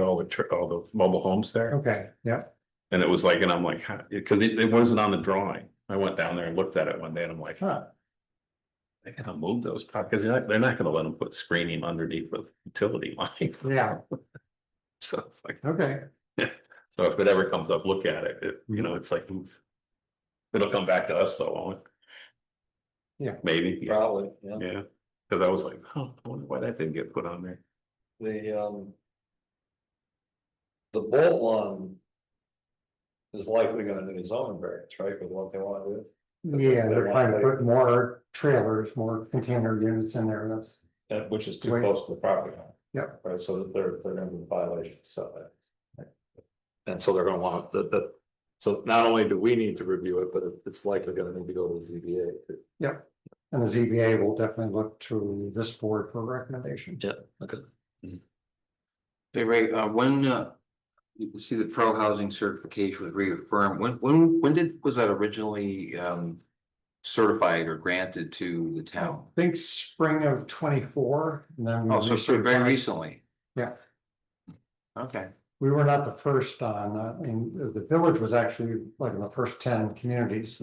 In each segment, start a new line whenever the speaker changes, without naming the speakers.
all the, tr- all the mobile homes there.
Okay, yeah,
And it was like, and I'm like, huh, cause it, it wasn't on the drawing. I went down there and looked at it one day and I'm like, huh. They gotta move those, pro- cause they're not, they're not gonna let them put screening underneath the utility line.
yeah,
So it's like,
okay,
so if it ever comes up, look at it, it, you know, it's like, oof. It'll come back to us though, won't it?
Yeah.
Maybe, yeah,
Probably, yeah,
yeah, cause I was like, huh, I wonder why that didn't get put on there.
the, um. The bolt one. Is likely gonna need its own variance, right, with what they wanna do.
yeah, they're trying to put more trailers, more container units in there, that's,
That which is too
Right.
close to the property line.
Yep.
Right, so that they're, they're gonna be violation setbacks. And so they're gonna want the, the, so not only do we need to review it, but it- it's likely gonna need to go to the ZBA.
and the ZBA will definitely look to this board for recommendation.
Okay.
Hey, Ray, uh, when, uh, you can see the pro housing certification was reaffirmed, when, when, when did, was that originally, um, certified or granted to the
I
town?
think spring of twenty-four, and then. we
Oh, so so very
recertified.
recently,
Yeah,
okay.
we were not the first on, uh, and the village was actually like in the first ten communities,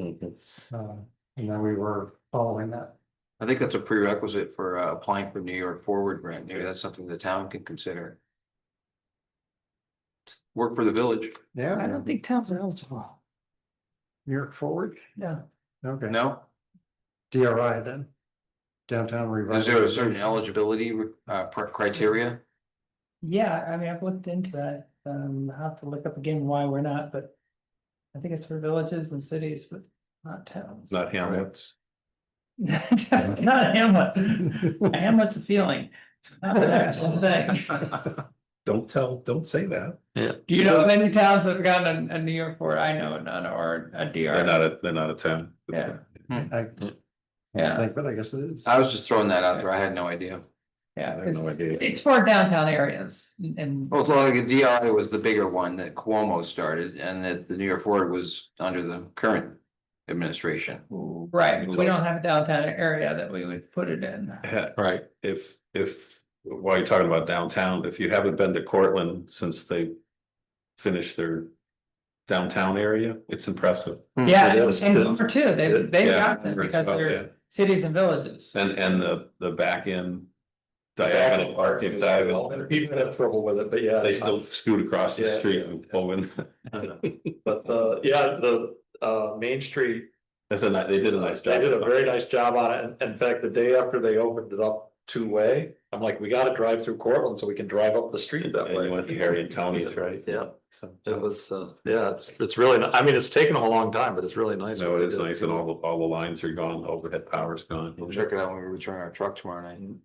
uh, and then we were following that.
I think that's a prerequisite for uh, applying for New York Forward Grant, maybe that's something the town can consider. Work for the village,
Yeah.
I don't think towns are eligible.
New York Forward,
No,
okay,
no?
DRI then. Downtown
Is
revitalization.
there a certain eligibility, uh, pr- criteria?
yeah, I mean, I've looked into that, um, I'll have to look up again why we're not, but. I think it's for villages and cities, but not
It's
towns.
not Hamlet's.
Not Hamlet, Hamlet's a feeling. Not an actual thing.
Don't tell, don't say that.
Do you know of any towns that have gotten a, a New York board, I know none, or a
They're
DR,
not a, they're not a town.
Yeah.
I
yeah,
think, but I guess it is.
I was just throwing that out there, I had no idea.
I
yeah,
have
it's,
no idea.
it's for downtown areas and.
Well, it's like the DRI was the bigger one that Cuomo started and that the New York Forward was under the current administration.
Oh.
Right, but we don't have a downtown area that we would put it in.
Heck,
Right.
if, if, while you're talking about downtown, if you haven't been to Cortland since they finished their downtown area, it's impressive.
Yeah,
It
and
is,
and
it
Hoover too, they,
It-
they've
yeah,
got them
Hoover's
because
about-
they're cities and villages.
And, and the, the back end diagonal park, if diagonal,
People have trouble with it, but yeah.
they still scoot across the
Yeah.
street and pull in.
But the, yeah, the, uh, Main Street
That's a nice, they did a nice job.
They did a very nice job on it. and- In fact, the day after they opened it up two-way, I'm like, we gotta drive through Cortland so we can drive up the street that
And
way.
you went to Harry and Tony's, right?
Yeah,
So,
it was, uh, yeah, it's, it's really, ni- I mean, it's taken a long time, but it's really nice.
no,
what
it
they
is
did.
nice and all the, all the lines are gone, the overhead power's gone.
We'll check it out when we return our truck tomorrow night in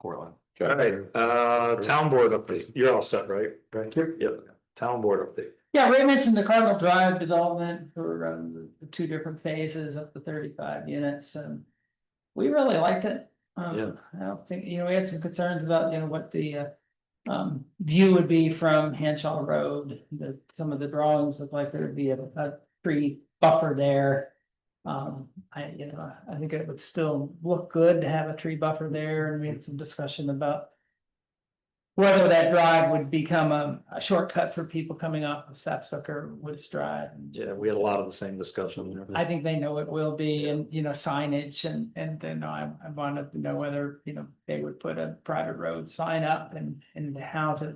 Portland.
All right, uh, town board update. You're all set, right? Right. Yep, town board update.
Yeah, Ray mentioned the Cardinal Drive development for um, the- the two different phases up to thirty-five units and. We really liked it.
Yeah.
Um, I don't think, you know, we had some concerns about, you know, what the uh. Um, view would be from Henshaw Road, the, some of the drawings look like there'd be a, a tree buffer there. Um, I, you know, I think it would still look good to have a tree buffer there and we had some discussion about. Whether that drive would become a, a shortcut for people coming off of Sapsucker Woods Drive.
Yeah, we had a lot of the same discussion. and everything.
I think they know it will be and, you know, signage and, and then I, I wanted to know whether, you know, they would put a private road sign up and, and how to.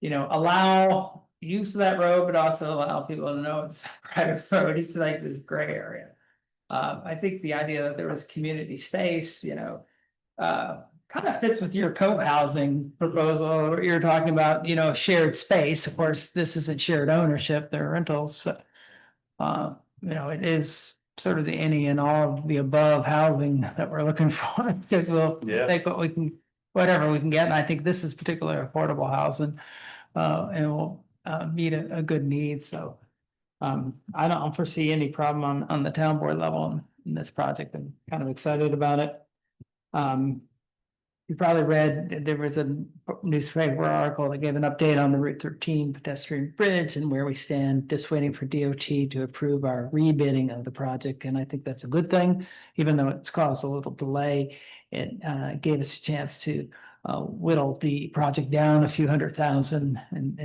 You know, allow use of that road, but also allow people to know it's a private road. It's like this gray area. Uh, I think the idea that there was community space, you know, uh, kind of fits with your co-housing proposal. where You're talking about, you know, shared space. Of course, this isn't shared ownership, they're rentals, but. Uh, you know, it is sort of the any and all of the above housing that we're looking for, because we'll
Yeah.
take what we can, whatever we can get, and I think this is particularly affordable housing. Uh, and will, uh, meet a, a good need, so. Um, I don't foresee any problem on, on the town board level in- in this project, I'm kind of excited about it. Um. You probably read, that there was a newspaper article that gave an update on the Route thirteen pedestrian bridge and where we stand, just waiting for DOT to approve our rebidding of the project, and I think that's a good thing. Even though it's caused a little delay, it uh gave us a chance to uh, whittle the project down a few hundred thousand and,